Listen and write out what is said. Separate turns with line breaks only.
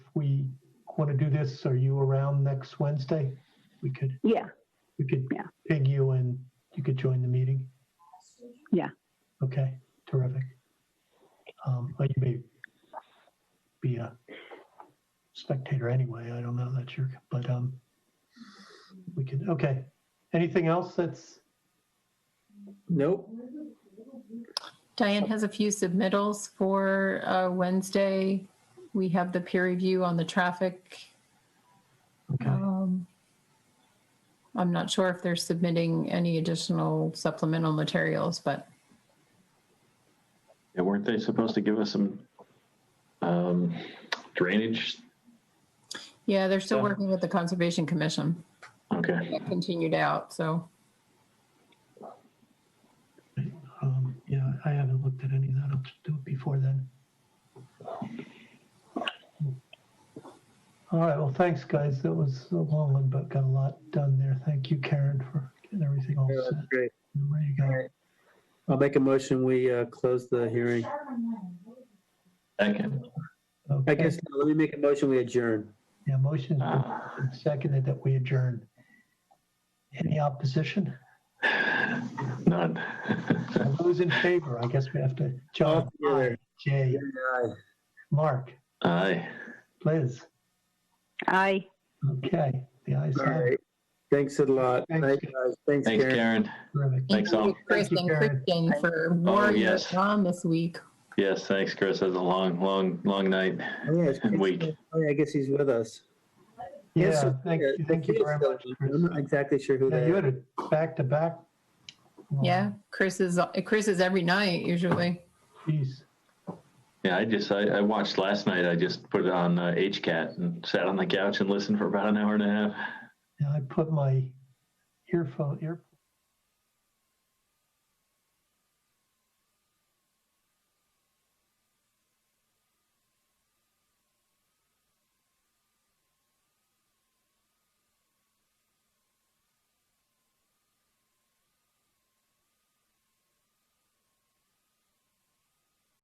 we want to do this, are you around next Wednesday? We could,
Yeah,
we could
Yeah.
ping you and you could join the meeting.
Yeah.
Okay, terrific. Um, But you may be a spectator anyway. I don't know. That's your, but um, we could, okay. Anything else that's,
Nope.
Diane has a few submittals for uh, Wednesday. We have the peer review on the traffic.
okay.
Um, I'm not sure if they're submitting any additional supplemental materials, but
Yeah, weren't they supposed to give us some um, drainage?
yeah, they're still
Yeah.
working with the Conservation Commission.
Okay,
It continued out, so
Um, yeah, I haven't looked at any of that. I'll just do it before then. All right, well, thanks, guys. That was a long one, but got a lot done there. Thank you, Karen, for getting everything all
Yeah,
set.
that's Great.
and Ready to
All
go.
right. I'll make a motion, we uh, close the hearing.
second.
I
Okay.
guess, no, let me make a motion, we adjourn.
Yeah, motion
Uh,
seconded that we adjourn. Any opposition?
None.
Those in favor, I guess we have to, John,
Aye.
Jay, Mark,
Aye.
Liz.
I.
Okay, the ayes
All
have it.
right. Thanks a lot.
Thanks.
Thanks, guys. Thanks,
Thanks,
Karen.
Karen.
Terrific.
Thanks, all.
thank you, Chris
Thank you,
and
Karen.
Christian for warrior
yes.
on this week.
Yes, thanks, Chris. That's a long, long, long night.
Oh, yeah, it's-
And Wade.
Oh, yeah, I guess he's with us.
Yeah,
Yes,
thank you,
yeah,
thank you
he is
very
still
much.
with us.
Chris.
I'm not exactly sure who
Yeah,
that
you
is.
had uh, it back to back.
Yeah, Chris is Chris is every night usually.
Jeez.
Yeah, I just, I, I watched last night. I just put it on uh, HCAT and sat on the couch and listened for about an hour and a half.
Yeah, I put my earphone, ear,